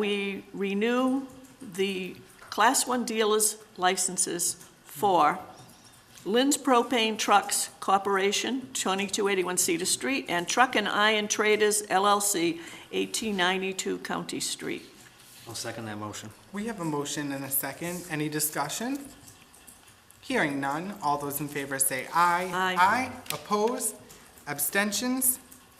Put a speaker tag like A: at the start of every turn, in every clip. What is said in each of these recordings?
A: We renew the Class 1 dealers licenses for Lynn's Propane Trucks Corporation, 2281 Cedar Street, and Truck and Iron Traders LLC, 1892 County Street.
B: I'll second that motion.
C: We have a motion and a second. Any discussion? Hearing none, all those in favor say aye.
A: Aye.
C: Aye, opposed, abstentions,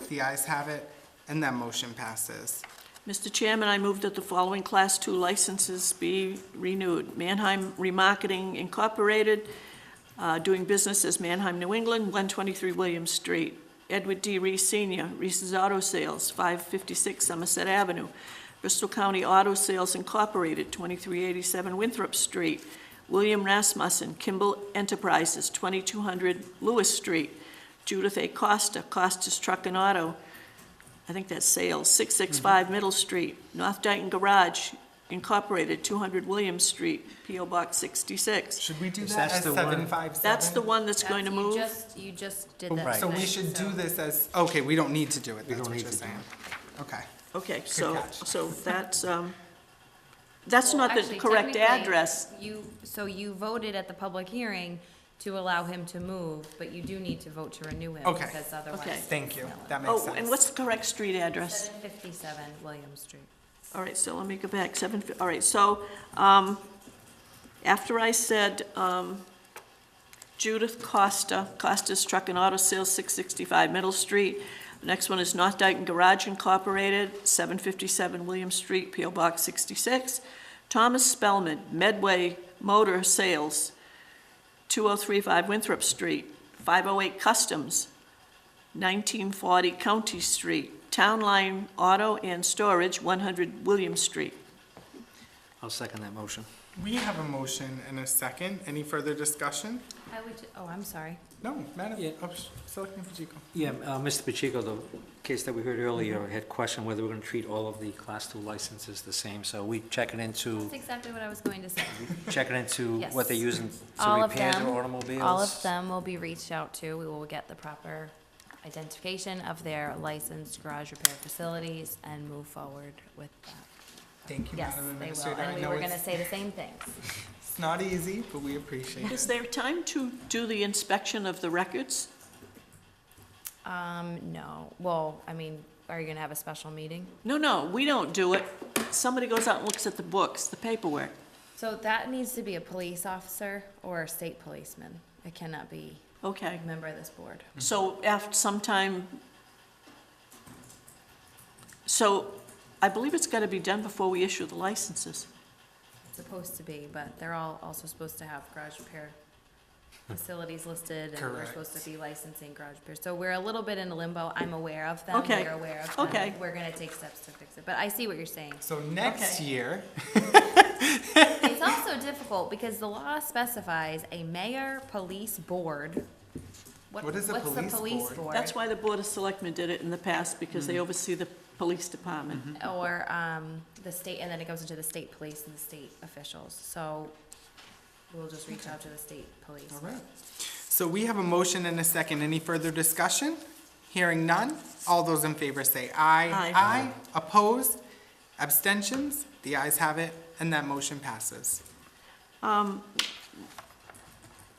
C: the ayes have it, and that motion passes.
A: Mr. Chairman, I move that the following Class 2 licenses be renewed. Manheim Remarketing Incorporated, uh, doing business as Manheim, New England, 123 William Street. Edward D. Reese Senior, Reese's Auto Sales, 556 Somerset Avenue. Bristol County Auto Sales Incorporated, 2387 Winthrop Street. William Rasmussen, Kimball Enterprises, 2200 Lewis Street. Judith A. Costa, Costa's Truck and Auto, I think that's sales, 665 Middle Street, North Dayton Garage Incorporated, 200 Williams Street, PO Box 66.
C: Should we do
B: Is
C: that
B: that
C: as
B: the one-
C: seven five seven?
A: That's the one that's going to
D: That's-
A: move?
D: You just, you just did that.
C: So we
D: tonight,
C: should do
D: so-
C: this as, okay, we don't need to do it, that's
B: don't
C: what
B: need
C: you're
B: to do
C: saying. Okay,
A: Okay, so,
C: catch.
A: so that's, um, that's not the
D: Actually,
A: correct
D: technically,
A: address.
D: You, so you voted at the public hearing to allow him to move, but you do need to vote to renew him.
C: Okay.
D: Because otherwise.
A: Okay.
C: thank you, that makes
A: Oh,
C: sense.
A: and what's the correct street address?
D: Seven fifty-seven William Street.
A: All right, so let me go back, seven, fif- all right, so, um, after I said, um, Judith Costa, Costa's Truck and Auto Sales, six sixty-five Middle Street. The next one is North Dyton Garage Incorporated, seven fifty-seven William Street, P O Box sixty-six. Thomas Spellman, Medway Motor Sales, two oh three five Winthrop Street, five oh eight Customs, 1940 County Street, Town Line Auto and Storage, 100 William Street.
B: I'll second that motion.
C: We have a motion and a second. Any further discussion?
D: I would, ju- oh, I'm sorry.
C: No, Madam,
B: Yeah.
C: oh, sh- Selectman Pacheco.
B: Yeah, uh, Mr. Pacheco, the case that we heard earlier had questioned whether we're going to treat all of the Class II licenses the same, so we checking into,
D: That's exactly what I was going to say.
B: checking into
D: Yes.
B: what they're using to
D: All of
B: repair
D: them.
B: their automobiles?
D: All of them will be reached out to. We will get the proper identification of their licensed garage repair facilities and move forward with that.
C: Thank you,
D: Yes,
C: Madam
D: they
C: Administrator.
D: will. And
C: I
D: we
C: know
D: were
C: it's-
D: gonna say the same things.
C: It's not easy, but we appreciate
A: Is
C: it.
A: there time to do the inspection of the records?
D: Um, no, well, I mean, are you gonna have a special meeting?
A: No, no, we don't do it. Somebody goes out and looks at the books, the paperwork.
D: So that needs to be a police officer or a state policeman. It cannot be
A: Okay,
D: a member of this board.
A: so after some time, so I believe it's got to be done before we issue the licenses.
D: It's supposed to be, but they're all also supposed to have garage repair facilities listed and we're
C: Correct.
D: supposed to be licensing garage repair. So we're a little bit in a limbo. I'm aware of them.
A: Okay.
D: We're aware of them.
A: Okay.
D: We're gonna take steps to fix it, but I see what you're saying.
C: So next
A: Okay.
C: year,
D: It's also difficult because the law specifies a mayor, police board.
C: What is a
D: what's the
C: police board?
A: That's why the Board of Selectmen did it in the past, because they oversee the police department.
C: Mm-hmm.
D: or um, the state, and then it goes into the state police and the state officials. So we'll just reach out to the state police.
C: All right. So we have a motion and a second. Any further discussion? Hearing none. All those in favor say aye.
A: Aye.
C: Aye. Opposed? Abstentions? The ayes have it, and that motion passes.
A: Um,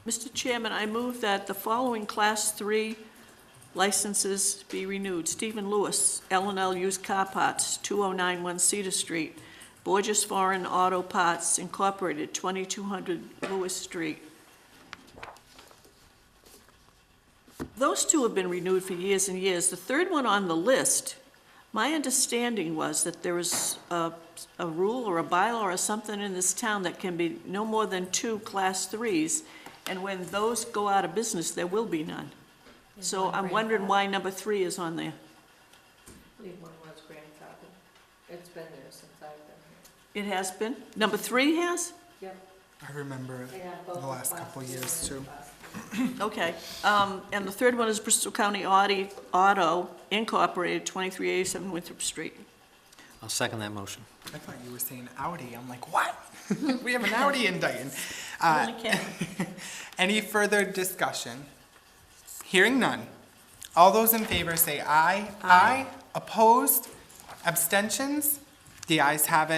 A: Mr. Chairman, I move that the following Class 3 licenses be renewed. Stephen Lewis, l and L Used Car Parts, 2091 Cedar Street. Borges Foreign Auto Parts Incorporated, 2200 Lewis Street. Those two have been renewed for years and years. The third one on the list, my understanding was that there is a, a rule or a bylaw or something in this town that can be no more than two class threes, and when those go out of business, there will be none. So
D: one
A: I'm wondering
D: grandfathered?
A: why number three is on there.
E: believe one was grandfathered. It's been there since I've been
A: It has been? Number three has?
E: here.
C: I remember it.
E: They have
C: The
E: both.
C: last
E: class
C: couple
E: two
C: years,
E: and
C: too.
E: class
A: Okay. Um, and the third one is Bristol County Audi Auto Incorporated, 2387 Winthrop Street.
B: I'll second that motion.
C: I thought you were saying Audi. I'm like, what? We have an Audi in Dayton. Uh,
A: Only can-
C: Any further discussion? Hearing none. All those in favor say aye. Aye. Opposed? Abstentions? The ayes have it.